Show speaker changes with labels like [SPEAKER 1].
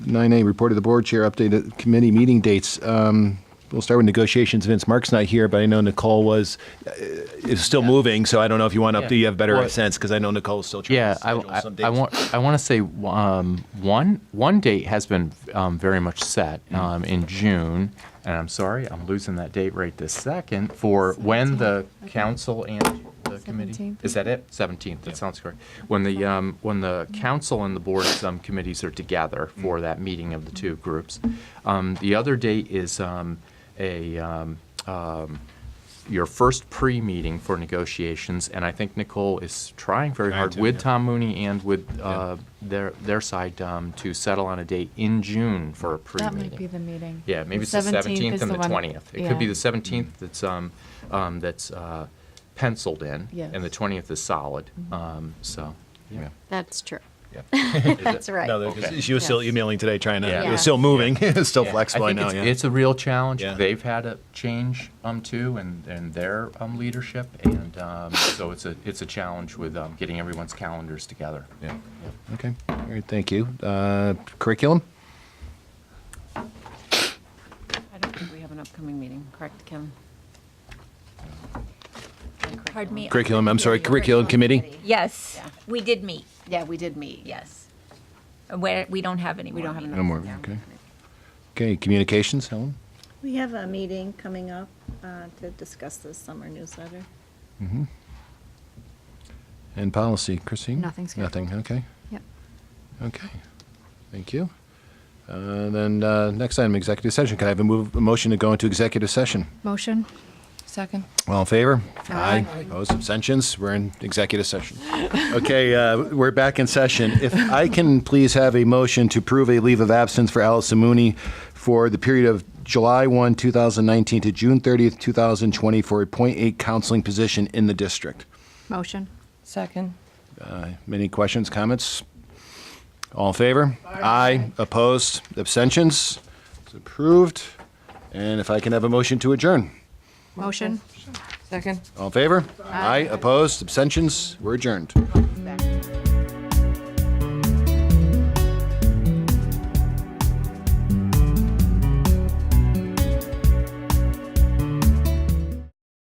[SPEAKER 1] 9A, report of the board chair, updated committee meeting dates. Um, We'll start with negotiations. Vince Mark's not here, but I know Nicole was, uh, is still moving, so I don't know if you want to, do you have better
[SPEAKER 2] Well-
[SPEAKER 1] sense? Because I know Nicole's still trying
[SPEAKER 2] Yeah,
[SPEAKER 1] to
[SPEAKER 2] I,
[SPEAKER 1] schedule
[SPEAKER 2] I-
[SPEAKER 1] some
[SPEAKER 2] I
[SPEAKER 1] dates.
[SPEAKER 2] want I want to say um, one one date has been um, very much set
[SPEAKER 1] Mm-hmm.
[SPEAKER 2] um, in June, and I'm sorry I'm losing that date right this second for when the council and the committee
[SPEAKER 3] 17th.
[SPEAKER 2] is that it 17th that sounds correct when the um, when the council and the board's um, committees are together
[SPEAKER 1] Mm-hmm.
[SPEAKER 2] for that meeting of the two groups. Um, the other date is um, a um, um, your first pre-meeting for negotiations, and I think Nicole is trying very
[SPEAKER 1] Trying
[SPEAKER 2] hard
[SPEAKER 1] to,
[SPEAKER 2] with
[SPEAKER 1] yeah.
[SPEAKER 2] Tom Mooney and with uh, their, their side um, to settle on a date in June for a
[SPEAKER 3] That might be
[SPEAKER 2] pre-meeting.
[SPEAKER 3] the meeting.
[SPEAKER 2] Yeah, maybe it's the 17th and the 20th. It could be the 17th
[SPEAKER 1] Mm-hmm.
[SPEAKER 2] that's, um, um, that's uh, penciled in, and the
[SPEAKER 3] Yes. Mm-hmm.
[SPEAKER 2] 20th is solid, um, so, yeah.
[SPEAKER 4] That's true.
[SPEAKER 2] Yeah.
[SPEAKER 4] That's right.
[SPEAKER 1] No, there- 'cause
[SPEAKER 2] Okay.
[SPEAKER 1] she was still
[SPEAKER 4] Yes.
[SPEAKER 1] emailing today, trying to,
[SPEAKER 2] Yeah.
[SPEAKER 1] it was still moving, it's still
[SPEAKER 2] Yeah, I
[SPEAKER 1] flexible, I
[SPEAKER 2] think
[SPEAKER 1] know,
[SPEAKER 2] it's-
[SPEAKER 1] yeah.
[SPEAKER 2] It's a real challenge.
[SPEAKER 1] Yeah.
[SPEAKER 2] They've had a change um too, and and their um leadership, and um so it's a it's a challenge with um getting everyone's calendars together.
[SPEAKER 1] Yeah. Okay, all right, thank you. Uh, Curriculum?
[SPEAKER 5] I don't think we have an upcoming meeting, correct, Kim?
[SPEAKER 6] Pardon me?
[SPEAKER 1] Curriculum, I'm sorry, curriculum committee?
[SPEAKER 6] Yes,
[SPEAKER 5] Yeah.
[SPEAKER 6] we did meet,
[SPEAKER 5] Yeah, we did meet.
[SPEAKER 6] yes. Where, we don't have any
[SPEAKER 5] We
[SPEAKER 6] more
[SPEAKER 5] don't have
[SPEAKER 6] meetings.
[SPEAKER 1] No more, okay. Okay, communications, Helen?
[SPEAKER 7] We have a meeting coming up uh, to discuss the summer newsletter.
[SPEAKER 1] And policy, Christine?
[SPEAKER 4] Nothing scheduled.
[SPEAKER 1] Nothing, okay.
[SPEAKER 4] Yep.
[SPEAKER 1] Okay, thank you. Uh, Then, uh, next item, executive session. Can I have a move, a motion to go into executive session?
[SPEAKER 4] Motion?
[SPEAKER 3] Second.
[SPEAKER 1] All in favor?
[SPEAKER 4] Aye.
[SPEAKER 1] Opposed, abstentions? We're in executive session. Okay, uh, we're back in session. If I can please have a motion to approve a leave of absence for Allison Mooney for the period of July 1, 2019 to June 30th, 2020 for a .8 counseling position in the district.
[SPEAKER 4] Motion?
[SPEAKER 3] Second.
[SPEAKER 1] Any questions, comments? All in favor? Aye. Opposed? Abstentions? It's approved. And if I can have a motion to adjourn?
[SPEAKER 4] Motion?
[SPEAKER 3] Second.
[SPEAKER 1] All in favor? Aye. Opposed? Abstentions? We're adjourned.